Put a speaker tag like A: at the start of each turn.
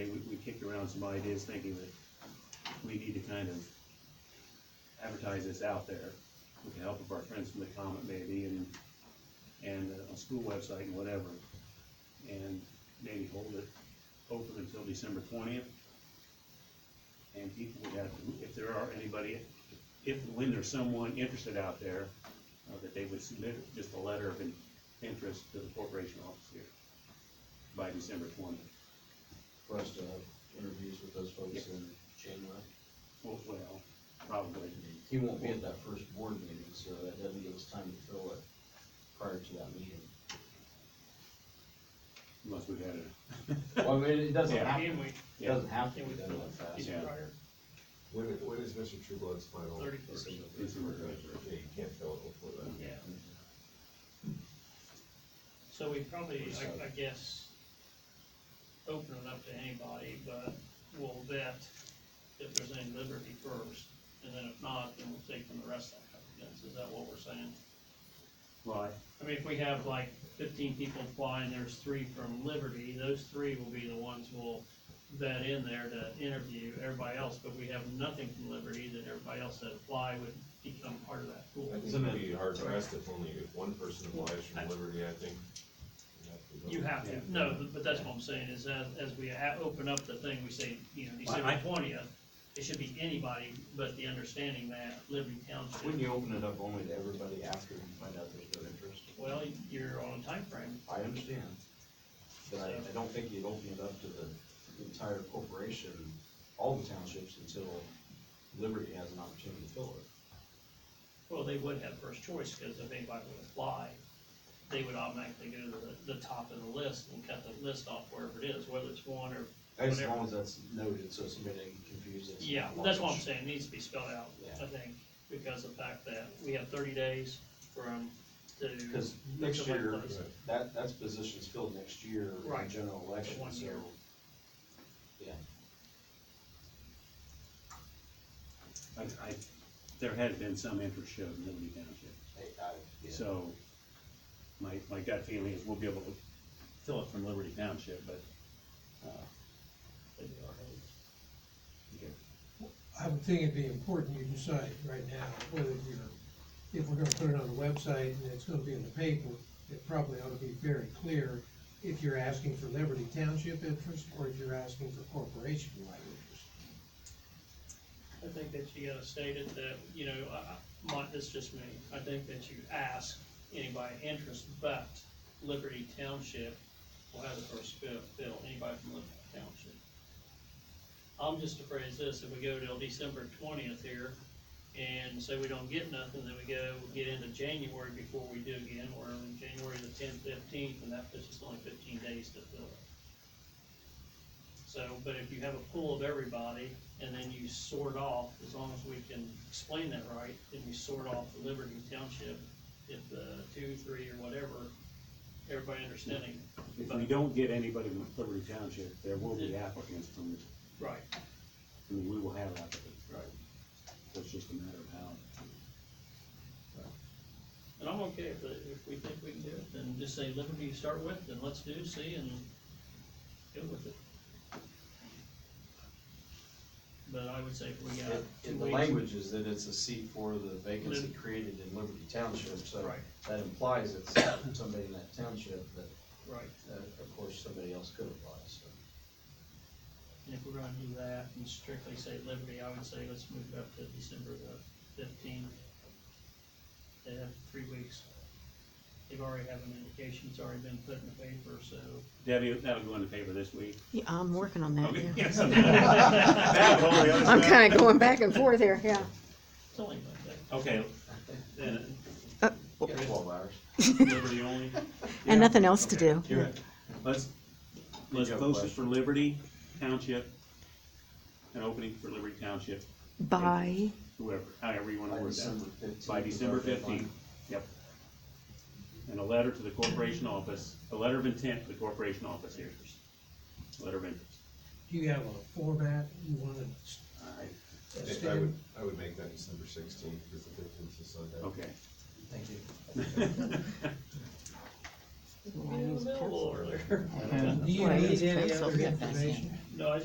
A: around some ideas, thinking that we need to kind of advertise this out there with the help of our friends from the Comet maybe, and, and uh, a school website and whatever. And maybe hold it open until December twentieth. And people would have, to- if there are anybody, if, when there's someone interested out there, uh, that they would submit just a letter of in- interest to the corporation office here by December twentieth.
B: for us to have interviews with those folks in January.
A: Well, well, probably.
C: Mm-hmm.
B: He won't be at that first board meeting, so that doesn't give us time to fill it prior to that meeting.
A: Unless we had a,
B: Well, I mean, it doesn't
A: Yeah.
B: have,
C: Can we,
B: it doesn't have to
C: can
B: be
C: we
B: done
C: fill
B: that
C: it
B: fast.
C: in
A: Yeah.
C: prior?
D: When, when is Mr. Trueblood's final?
C: 31st.
D: December 31st. Okay, you can't fill it before that.
C: Yeah. So we probably, I, I guess, open it up to anybody, but we'll vet if there's any liberty first, and then if not, then we'll take from the rest of the applicants, is that what we're saying?
A: why?
C: I mean, if we have like fifteen people apply and there's three from Liberty, those three will be the ones we'll vet in there to interview everybody else, but we have nothing from Liberty, then everybody else that apply would become part of that pool.
D: I think it'd be hard pressed if only if one person applies from Liberty, I think. you'd have to
C: You have
D: go.
A: Yeah.
C: to, no, but- but that's what I'm saying, is as, as we ha- open up the thing, we say, you know, December twentieth, it should be anybody, but the understanding that Liberty
B: Wouldn't
C: Township,
B: you open it up only to everybody after we find out there's no interest?
C: well, you're on a timeframe,
B: I understand, but I, I don't think you'd open it up to the entire corporation, all the townships, until Liberty has an opportunity to fill it.
C: well, they would have first choice, because if anybody would apply, they would automatically go to the, the top of the list and cut the list off wherever it is, whether it's one or,
B: As
C: Whatever.
B: long as that's noted, so somebody didn't confuse it.
C: yeah, that's what I'm saying, it needs to be spelled out,
B: Yeah.
C: I think, because of the fact that we have thirty days from to.
B: Because next
C: somebody
B: year,
C: applies.
B: that, that's position's filled next year in
C: Right.
B: general election,
C: one
B: so.
C: year.
B: Yeah,
A: I, I, there had been some interest showed in Liberty Township.
B: I, I, yeah,
A: So my, my gut feeling is we'll be able to fill it from Liberty Township, but, uh,
E: I would think it'd be important you decide right now whether you're, if we're gonna put it on the website and it's gonna be in the paper, it probably ought to be very clear if you're asking for Liberty Township interest or if you're asking for corporation-wide interest.
C: I think that you gotta state it that, you know, I, I, my, it's just me, I think that you ask anybody interest, but Liberty Township will have the first fill, fill, anybody from Liberty Township. I'm just afraid of this, if we go till December twentieth here, and say we don't get nothing, then we go, get into January before we do again, or in January the tenth, fifteenth, and that puts us only fifteen days to fill it. So, but if you have a pool of everybody, and then you sort off, as long as we can explain that right, then you sort off the Liberty Township, if the two, three, or whatever, everybody understanding.
A: if we don't get anybody from Liberty Township, there will be applicants from,
C: Right.
A: I mean, we will have applicants.
C: Right.
A: So it's just a matter of how.
C: And I'm okay if, it- if we think we can do it, then just say Liberty to start with, and let's do, see, and go with it. But I would say if we got
B: And-
C: two
B: and the
C: weeks.
B: language is that it's a seat for the vacancy
C: Lib-
B: created in Liberty Township, so
C: Right,
B: that implies it's somebody in that township that,
C: right.
B: that of course, somebody else could apply, so.
C: And if we're gonna do that and strictly say Liberty, I would say let's move it up to December the fifteenth. They have three weeks. They've already have an indication, it's already been put in the paper, so.
A: Debbie, that'll go in the paper this week.
F: Yeah, I'm working on that,
A: Okay.
F: yeah.
A: Yes. That and all the other
F: I'm
A: stuff.
F: kinda going back and forth here, yeah.
C: It's only like that.
A: Okay, then
B: Yeah, Twelve hours.
A: Liberty only. Yeah.
F: And nothing else to do.
A: You're right. Let's, let's
B: You have a
A: post it for
B: question?
A: Liberty Township, an opening for Liberty Township,
F: Bye.
A: whoever, however you wanna
B: By
A: word that.
B: December fifteenth.
A: By December fifteenth, yep. And a letter to the corporation office, a letter of intent to the corporation office here. Letter of intent.
E: Do you have a format you wanna s-
D: I think I would, I would make that December sixteenth, because the fifteenth is Sunday.
A: Okay.
B: Thank you.
C: Maybe a little over there.
E: Do you
F: Right,
E: need
F: it's
E: any
F: pencil,
E: other
F: yeah, that's it.
E: information?
C: No, I